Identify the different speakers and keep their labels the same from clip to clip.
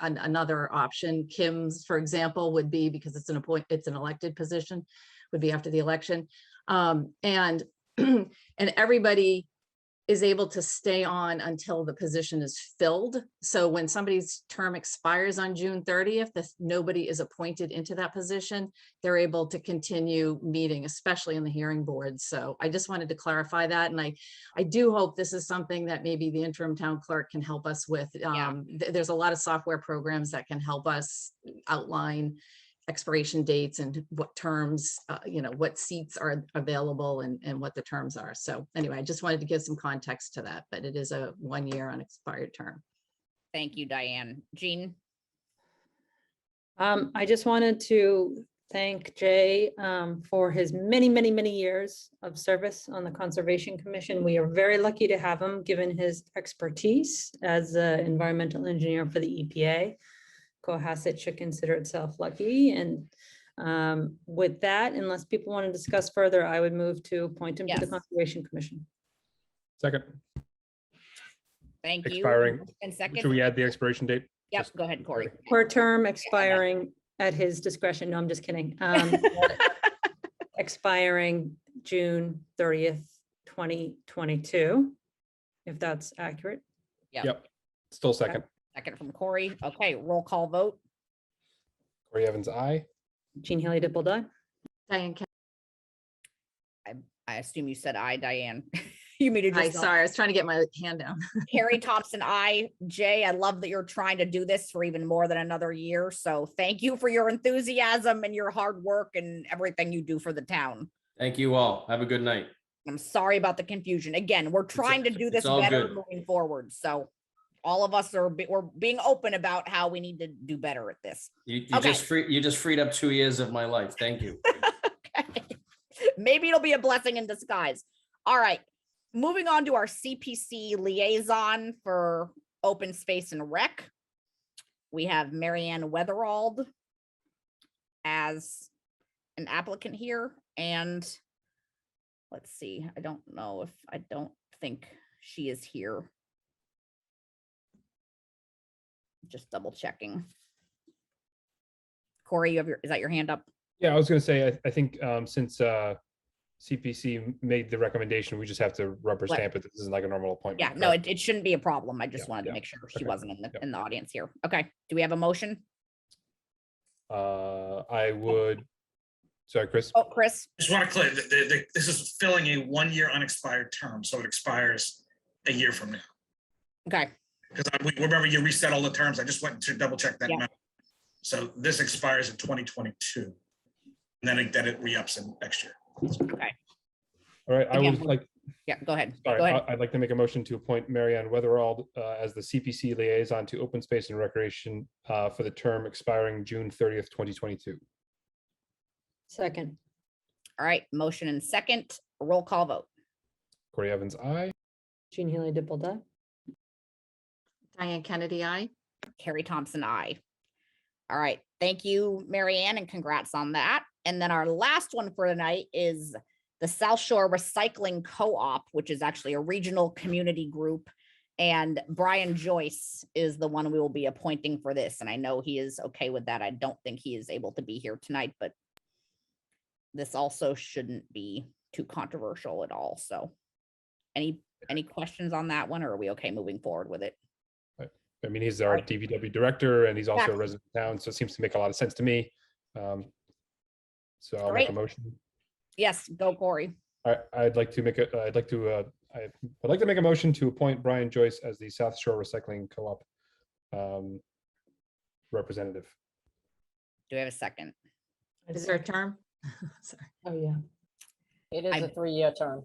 Speaker 1: an, another option. Kim's, for example, would be, because it's an appoint, it's an elected position, would be after the election. Um, and, and everybody is able to stay on until the position is filled. So when somebody's term expires on June thirtieth, if nobody is appointed into that position, they're able to continue meeting, especially in the hearing board. So I just wanted to clarify that. And I, I do hope this is something that maybe the interim town clerk can help us with.
Speaker 2: Yeah.
Speaker 1: Um, th- there's a lot of software programs that can help us outline expiration dates and what terms, uh, you know, what seats are available and, and what the terms are. So anyway, I just wanted to give some context to that, but it is a one-year unexpired term.
Speaker 2: Thank you, Diane. Jean?
Speaker 3: Um, I just wanted to thank Jay, um, for his many, many, many years of service on the Conservation Commission. We are very lucky to have him, given his expertise as an environmental engineer for the EPA. Cohasset should consider itself lucky. And, um, with that, unless people want to discuss further, I would move to appoint him to the
Speaker 2: Yes.
Speaker 3: Conservation Commission.
Speaker 4: Second,
Speaker 2: Thank you.
Speaker 4: Expiring.
Speaker 2: And
Speaker 4: should
Speaker 2: second,
Speaker 4: we add the expiration date?
Speaker 2: yep,
Speaker 4: just-
Speaker 2: go ahead, Corey.
Speaker 3: Or term expiring at his discretion. No, I'm just kidding. Um, Expiring June thirtieth, twenty twenty-two, if that's accurate.
Speaker 4: Yep, still second.
Speaker 2: Second from Corey. Okay, roll call vote.
Speaker 4: Corey Evans, I.
Speaker 3: Jean Haley Dipple Dye.
Speaker 1: Diane, Ke-
Speaker 2: I assume you said I, Diane. You muted
Speaker 1: hi,
Speaker 2: yourself.
Speaker 1: sorry, I was trying to get my hand down.
Speaker 2: Harry Thompson, I. Jay, I love that you're trying to do this for even more than another year. So thank you for your enthusiasm and your hard work and everything you do for the town.
Speaker 5: Thank you all. Have a good night.
Speaker 2: I'm sorry about the confusion. Again, we're trying to do
Speaker 5: it's
Speaker 2: this
Speaker 5: all
Speaker 2: better
Speaker 5: good.
Speaker 2: moving forward. So all of us are, be- we're being open about how we need to do better at this.
Speaker 5: You, you
Speaker 2: Okay.
Speaker 5: just free, you just freed up two years of my life. Thank you.
Speaker 2: Maybe it'll be a blessing in disguise. All right. Moving on to our CPC liaison for open space and rec. We have Marianne Weatherald as an applicant here and let's see, I don't know if, I don't think she is here. Just double checking. Corey, you have your, is that your hand up?
Speaker 4: Yeah, I was gonna say, I, I think, um, since, uh, CPC made the recommendation, we just have to rubber
Speaker 2: Right.
Speaker 4: stamp it. This isn't like a normal appointment.
Speaker 2: Yeah, no, it, it shouldn't be a problem. I just
Speaker 4: Yeah,
Speaker 2: wanted to
Speaker 4: yeah,
Speaker 2: make sure she
Speaker 4: okay,
Speaker 2: wasn't in the,
Speaker 4: yeah.
Speaker 2: in the audience here. Okay, do we have a motion?
Speaker 4: Uh, I would, sorry, Chris,
Speaker 2: Oh, Chris,
Speaker 6: Just want to clear, that the, the, this is filling a one-year unexpired term, so it expires a year from now.
Speaker 2: okay,
Speaker 6: Because I, we, remember you reset all the terms, I just went to double check that.
Speaker 2: Yeah.
Speaker 6: number. So this expires in twenty twenty-two. And then it, then it re-ups in next year.
Speaker 4: all right, I
Speaker 2: Again.
Speaker 4: would like,
Speaker 2: yeah, go ahead, go
Speaker 4: sorry,
Speaker 2: ahead.
Speaker 4: I- I'd like to make a motion to appoint Marianne Weatherald, uh, as the CPC liaison to open space and recreation, uh, for the term expiring June thirtieth, twenty twenty-two.
Speaker 3: Second,
Speaker 2: All right, motion and second, roll call vote.
Speaker 4: Corey Evans, I.
Speaker 3: Jean Haley Dipple Dye.
Speaker 1: Diane Kennedy, I.
Speaker 2: Carrie Thompson, I. All right, thank you, Marianne, and congrats on that. And then our last one for tonight is the South Shore Recycling Co-op, which is actually a regional community group. And Brian Joyce is the one we will be appointing for this, and I know he is okay with that. I don't think he is able to be here tonight, but this also shouldn't be too controversial at all, so. Any, any questions on that one, or are we okay moving forward with it?
Speaker 4: I mean, he's our
Speaker 2: Right.
Speaker 4: DVW director and he's also a
Speaker 2: Exactly.
Speaker 4: resident of town, so it seems to make a lot of sense to me. Um, So I'll make a
Speaker 2: Great.
Speaker 4: motion.
Speaker 2: Yes, go Corey.
Speaker 4: I, I'd like to make a, I'd like to, uh, I would like to make a motion to appoint Brian Joyce as the South Shore Recycling Co-op um, representative.
Speaker 2: Do we have a second?
Speaker 1: Is there a term? Sorry.
Speaker 3: Oh, yeah.
Speaker 7: It is
Speaker 2: I'm-
Speaker 7: a three-year term.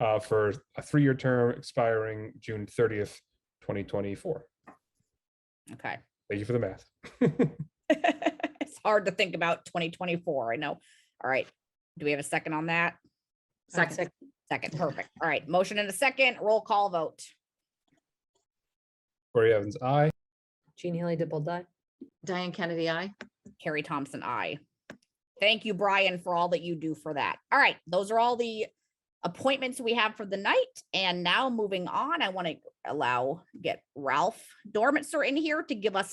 Speaker 4: uh, For a three-year term expiring June thirtieth, twenty twenty-four.
Speaker 2: Okay.
Speaker 4: Thank you for the math.
Speaker 2: It's hard to think about twenty twenty-four, I know. All right. Do we have a second on that?
Speaker 1: Second,
Speaker 2: Second, perfect. All right, motion and a second, roll call vote.
Speaker 4: Corey Evans, I.
Speaker 3: Jean Haley Dipple Dye.
Speaker 1: Diane Kennedy, I.
Speaker 2: Carrie Thompson, I. Thank you, Brian, for all that you do for that. All right, those are all the appointments we have for the night. And now moving on, I want to allow, get Ralph Dormitzer in here to give us an